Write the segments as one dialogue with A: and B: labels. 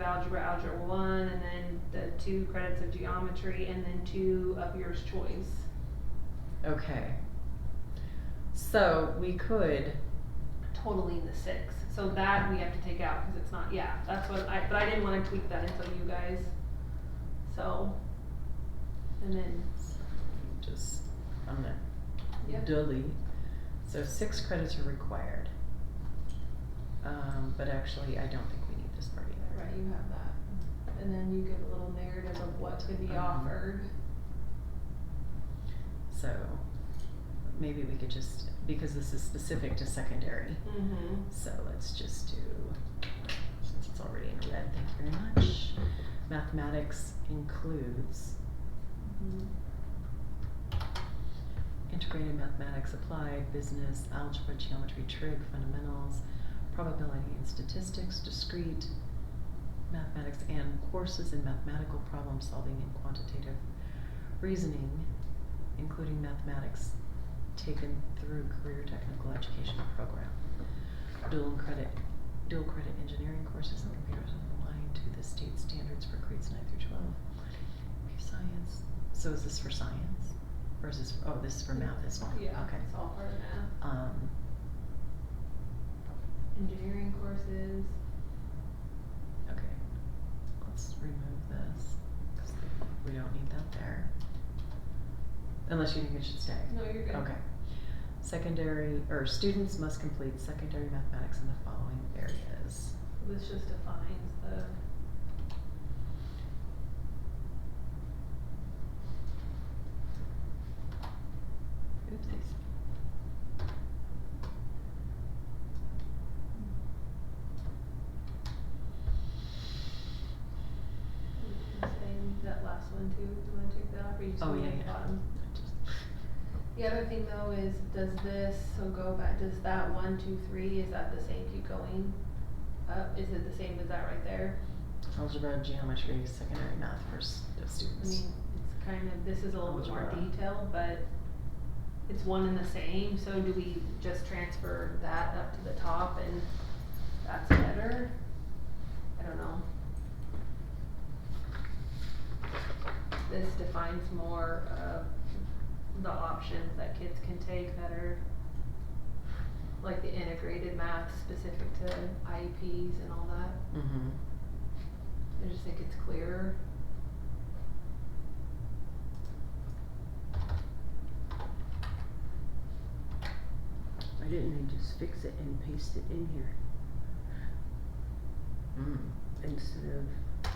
A: algebra, algebra one, and then the two credits of geometry, and then two of yours choice.
B: Okay. So we could,
A: Totaling the six, so that we have to take out, cause it's not, yeah, that's what I, but I didn't wanna tweak that until you guys, so. And then,
B: just, I'm gonna
A: Yep.
B: delete. So six credits are required. Um, but actually, I don't think we need this part either.
A: right, you have that, and then you give a little narrative of what could be
B: Um,
A: offered.
B: So maybe we could just, because this is specific to secondary,
A: Mm-hmm.
B: so let's just do, since it's already in red, thank you very much. Mathematics includes
A: Mm-hmm.
B: integrated mathematics, applied business, algebra, geometry, trig, fundamentals, probability and statistics, discrete mathematics, and courses in mathematical problem solving and quantitative reasoning, including mathematics taken through career technical education program. Dual credit, dual credit engineering courses and computers aligned to the state standards for grades nine through twelve. Science, so is this for science? Or is this, oh, this is for math as well?
A: Yeah,
B: Okay.
A: it's all part of math.
B: Um,
A: engineering courses.
B: okay. Let's remove this, 'cause we don't need that there. Unless you think it should stay.
A: No, you're good.
B: Okay. Secondary, or students must complete secondary mathematics in the following areas.
A: This just defines the.
B: Oopsies.
A: Same, that last one too, do you wanna take that off, or you just
B: Oh,
A: wanna
B: yeah,
A: leave the
B: yeah.
A: bottom?
B: I just-
A: The other thing though is, does this, so go back, does that one, two, three, is that the same, keep going? Up, is it the same as that right there?
B: Algebra, geometry, secondary math for s- the
A: I mean,
B: students.
A: it's kind of, this is a little bit more
B: Algebra.
A: detailed, but it's one and the same, so do we just transfer that up to the top and that's better? I don't know. This defines more of the options that kids can take that are like the integrated math specific to IEPs and all that.
B: Mm-hmm.
A: I just think it's clearer.
C: Why didn't they just fix it and paste it in here
B: Mm.
C: instead of?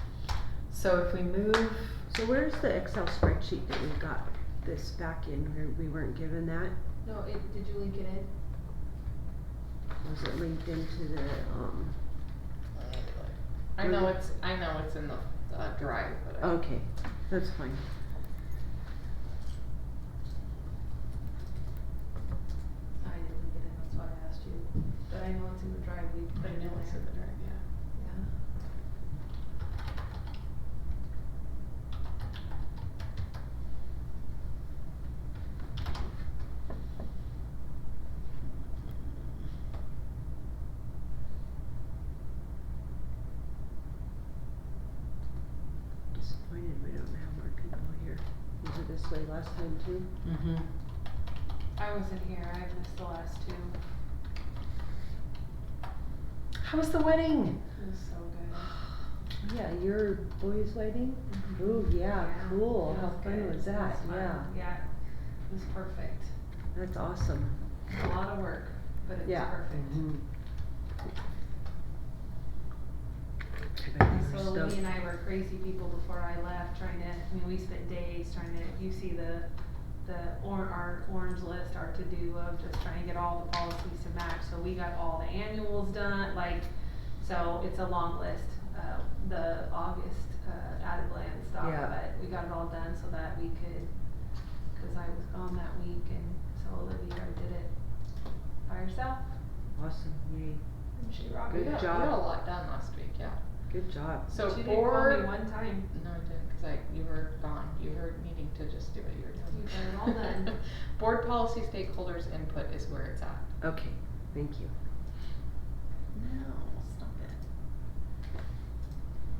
B: So if we move,
C: So where's the Excel spreadsheet that we got this back in? We- We weren't given that.
A: No, it, did you link it in?
C: Was it linked into the um?
D: I know it's, I know it's in the, uh, drive, but
B: Oh.
D: I.
C: Okay, that's fine.
A: I didn't get it, that's why I asked you, but I know it's in the drive, we put it in
D: It's in
A: there,
D: the drive, yeah.
A: yeah.
C: Disappointed we don't have more people here. Was it this way last time too?
B: mm-hmm.
A: I wasn't here, I missed the last two,
B: How was the wedding?
A: it was so good.
C: Yeah, your boy's wedding? Ooh, yeah,
A: Yeah,
C: cool.
A: it
C: How
A: was
C: fun
A: good.
C: was
A: It
C: that?
A: fun.
C: Yeah,
A: Yeah, it was perfect,
C: that's awesome.
A: It was a lot of work, but it was
C: Yeah.
A: perfect.
B: Mhm.
C: I bet they were
A: So Lee
C: stoked.
A: and I were crazy people before I left, trying to, I mean, we spent days trying to, you see the, the or, our orange list, our to-do of just trying to get all the policies to match, so we got all the annuals done, like, so it's a long list, uh, the August, uh, added land stuff,
C: Yeah.
A: but we got it all done so that we could, cause I was gone that week and so Olivia did it by herself,
C: Awesome, yay.
A: and she rocked
D: We
A: it
C: Good
A: up.
D: got, we got a
C: job.
D: lot done last week, yeah.
C: Good job.
D: So
A: She didn't call me
D: for,
A: one time.
D: no, I didn't, cause I, you were gone, you were needing to just do what you were doing.
A: You got it all done.
D: Board policy stakeholders input is where it's at.
C: Okay, thank you.
B: Now,